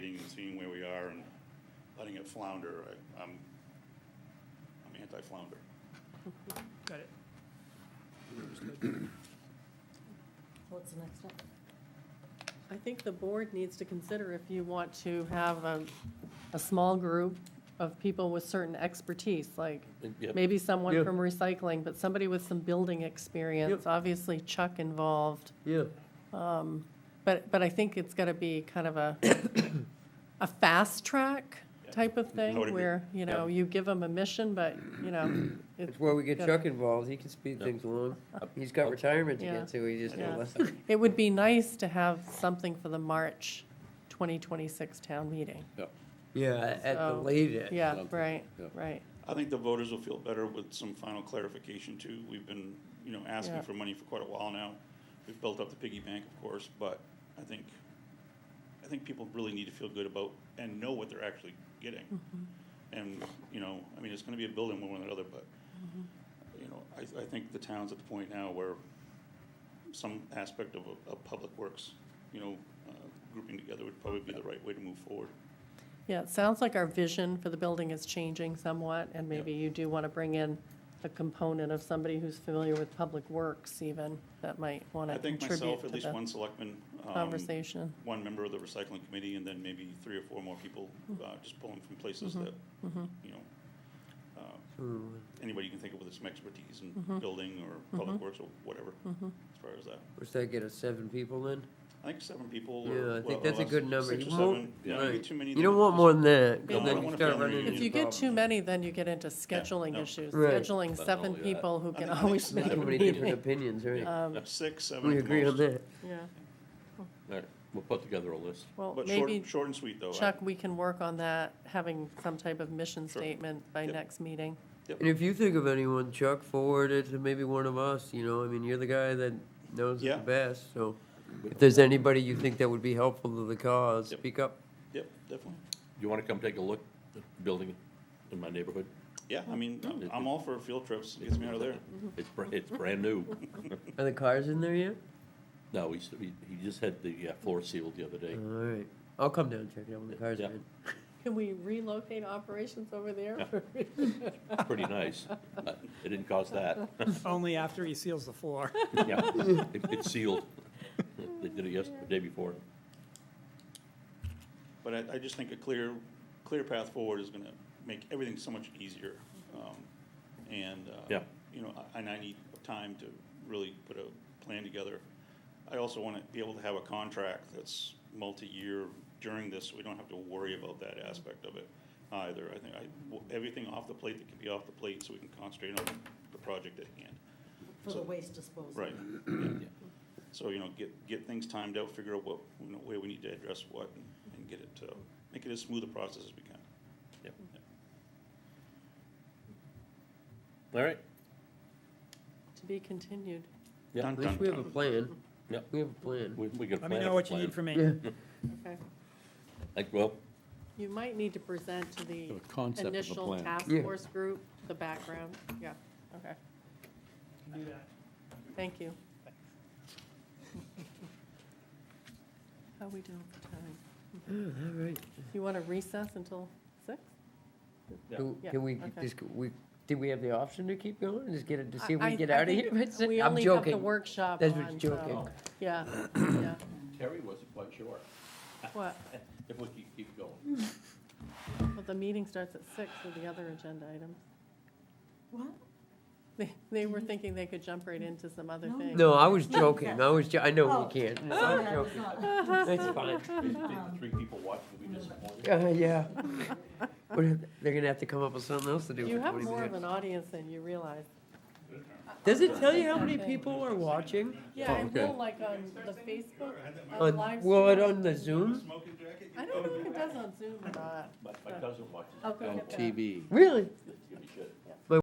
letting it flounder. I- I'm, I'm anti-flounder. Got it. What's the next step? I think the board needs to consider if you want to have a, a small group of people with certain expertise, like Yep. maybe someone Yeah. from recycling, but somebody with some building experience, obviously Chuck involved. Yeah, But, but I think it's gonna be kind of a, a fast track type of I would thing agree. where, you know, you give them a mission, but, you know, it, that's where we get Got Chuck involved, he can speed things along. He's got retirement to Yeah. get to, he just, Yeah. less. it would be nice to have something for the March 2026 town meeting. yeah, at the So, latest. Yeah, something, right, yeah. right. I think the voters will feel better with some final clarification too. We've been, you know, Yeah. asking for money for quite a while now. We've built up the piggy bank, of course, but I think, I think people really need to feel good about and know what they're actually getting. Mm-hmm. And, you know, I mean, it's gonna be a building one way or another, but, Mm-hmm. you know, I, I think the town's at the point now where some aspect of, a- of public works, you know, uh, grouping together would probably be the right way to move forward. Yeah, it sounds like our vision for the building is changing somewhat, and maybe you do want to bring in a component of somebody who's familiar with public works even, that might want I to think myself, contribute to at least one the selectman. um, conversation. One member of the recycling committee, and then maybe three or four more people, uh, Mm-hmm. just pulling from places that, you know, uh, Hmm. anybody you can think of with some expertise Mm-hmm. in building or public works or whatever, as far as that. What's that get us, seven people then? I think seven people. or- Yeah, I well, think that's a less, good number. Six You or won't- seven, yeah, maybe right. too many. You don't want more than that, No, because I don't then you want a start family running reunion. into If you get problems. too many, then you get into scheduling no. issues, Right. scheduling But seven all, yeah. people who I can think I always think make a Too many different meeting. opinions, Uh, right? than Six, seven. We at the agree on most. that. Yeah, All right, we'll put together a list. well, But short, maybe, short and sweet, though. I- Chuck, we can work on that, having some type of mission Sure. statement by Yep. next meeting. And if you think of anyone, Chuck, forward it to maybe one of us, you know, I mean, you're the guy that knows Yeah. it the best, so. If there's anybody you think that would be helpful to the cause, Yep. speak up. Yep, definitely. You want to come take a look at the building in my neighborhood? Yeah, I mean, I'm- I'm all for field trips. Gets me out of there. It's, br- it's brand new. Are the cars in there yet? No, he's, he he just had the uh, floor sealed the other day. All right, I'll come down and check it out when the cars Yeah. are in. Can we relocate operations over there? It's pretty nice. Uh, It didn't cause that. Only after he seals the floor. Yeah, it- it's sealed. They did it yesterday, the day before. But I, I just think a clear, clear path forward is gonna make everything so much easier. Um, And, uh, Yeah. you know, I- and I need time to really put a plan together. I also wanna be able to have a contract that's multi-year during this, so we don't have to worry about that aspect of it either. I think I, w- everything off the plate that can be off the plate, so we can concentrate on the project at hand. For the So- waste disposal. Right. yeah. So, you know, get, get things timed out, figure out what, you know, where we need to address what, and get it, uh, make it as smooth a process as we can. Yep. All right, To be continued. Yeah. Dun, At least dun, we have a dun. plan. Yeah. We have a plan. we, we can plan. Let me know what you plan. need from me. Yeah, Okay. Like, well, You might need to present to the The concept of a initial plan. task Yeah. force group, the background, yeah, okay, Do that. thank you. How we doing for time? all right. You want to recess until six? Yeah. Can- Yeah, Can we, okay. just, we, did we have the option to keep going and just get it, to see if I- we I- get I out of think here? We I'm only have the joking. workshop That's on, what's so, joking. yeah, yeah, Terry wasn't quite sure what, if we could keep going. well, the meeting starts at six with the other agenda items. What? They, they were thinking they could jump right into some other No. things. No, I was joking, I was, jo- I know Oh. we can't. Oh, I was yeah, it's joking. not- It's fine. Did the Three people watching, we disappointed. Uh, yeah. What if- They're gonna have to come up with something else to do You for have twenty more of minutes. an audience than you realize. Does it tell you how many people are watching? Yeah, I okay. will, like on the Facebook, on Oh, On, live well, it stream. on the Zoom? I don't know if it does on Zoom or not. My, my cousin watches. I'll go On get that. TV. Really? It's gonna be shit.